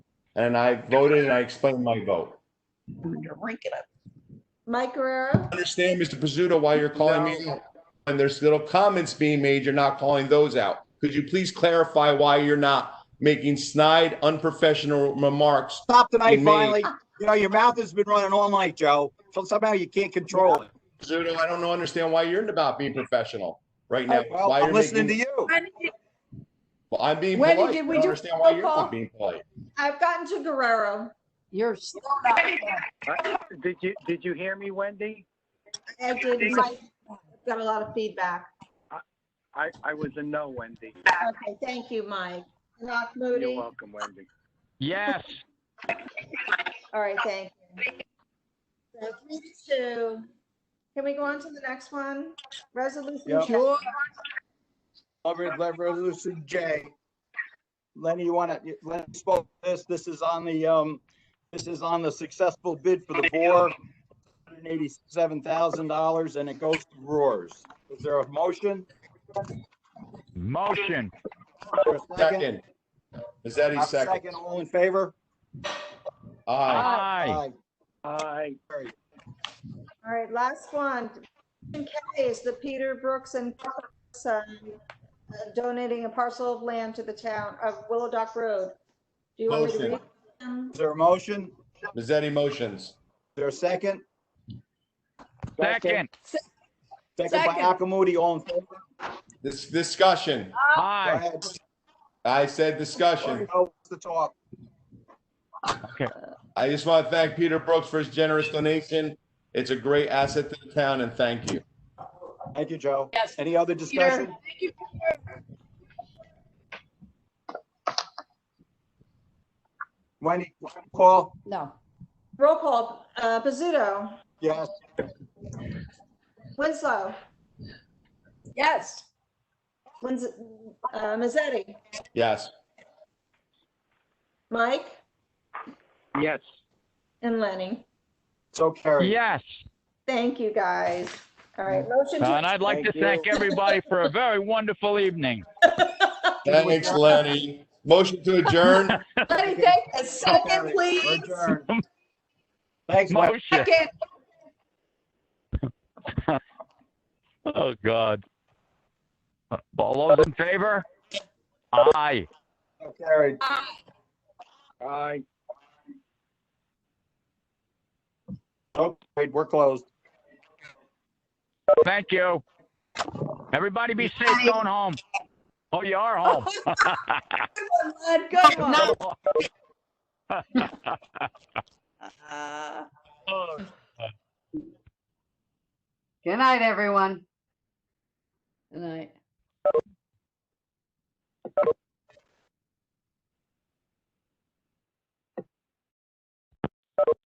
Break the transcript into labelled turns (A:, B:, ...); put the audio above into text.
A: And I voted and I explained my vote.
B: You're ranking up.
C: Mike Guerrero?
A: Understand, Mr. Pizzuto, why you're calling me out. And there's little comments being made, you're not calling those out. Could you please clarify why you're not making snide, unprofessional remarks?
D: Stop tonight,
A: Me.
D: finally. You know, your mouth has been running all night, Joe. So somehow you can't control it.
A: Pizzuto, I don't know, understand why you're not being professional right now.
D: Oh, Well,
A: Why
D: I'm
A: you're
D: listening to
A: making-
D: you.
A: Well, I'm being
C: Wendy,
A: polite. I
C: did we
A: don't
C: do
A: understand why you're
C: roll call?
A: not being polite.
C: I've gotten to Guerrero.
E: You're still not.
F: Did you, did you hear me, Wendy?
C: I did, Mike, got a lot of feedback.
F: I, I was a no, Wendy.
C: Okay, thank you, Mike. Rock
F: You're
C: Moody? All
F: welcome, Wendy. Yes.
C: right, thank you. So three to two. Can we go on to the next one? Resolution.
D: Yep.
C: J.
D: Over at Resolution J. Lenny, you want to, Lenny spoke to this, this is on the, um, this is on the successful bid for the bore. $187,000 and it goes to Roars. Is there a motion?
F: Motion.
D: Is there a
A: Second. Is that
D: I'm
A: a second?
D: Second, all in favor?
F: Oh.
A: Aye.
F: Aye. Aye.
C: All right, last one. Resolution K is the Peter Brooks and Brooks, um, uh, donating a parcel of land to the town of Willow Dock Road. Do you want me to
A: Motion.
C: read them?
D: Is there a motion? Is
A: Mazzetti motions.
D: there a second?
G: Second.
D: Second by Akamuti, all in favor?
A: This discussion,
D: Go
G: Aye.
D: ahead.
A: I said discussion.
D: Joe wants to talk.
A: I just want to thank Peter Brooks for his generous donation. It's a great asset to the town and thank you.
D: Thank you, Joe.
E: Yes.
D: Any other discussion? Wendy, Paul,
E: No.
C: Roll call, uh, Pizzuto,
D: yes,
C: Winslow,
E: Yes.
C: Wins, uh, Mazzetti,
A: Yes.
C: Mike,
F: Yes.
C: and Lenny.
D: so carried.
G: Yes.
C: Thank you, guys. All right, motion
G: Uh, And
C: to,
G: I'd like to
D: Thank you.
G: thank everybody for a very wonderful evening.
A: Thanks, Lenny. Motion to adjourn.
C: Lenny, take a second,
D: Carried. We're
C: please.
D: adjourned. Thanks, Wendy.
G: Motion.
C: Second.
G: Oh, God. All those in favor? Aye.
D: So carried.
F: Aye.
D: So carried. We're closed.
G: Thank you. Everybody be safe going home. Oh, you are home.
C: Lud, Go on.
B: Uh,
G: Oh,
E: Good night, everyone. Good night.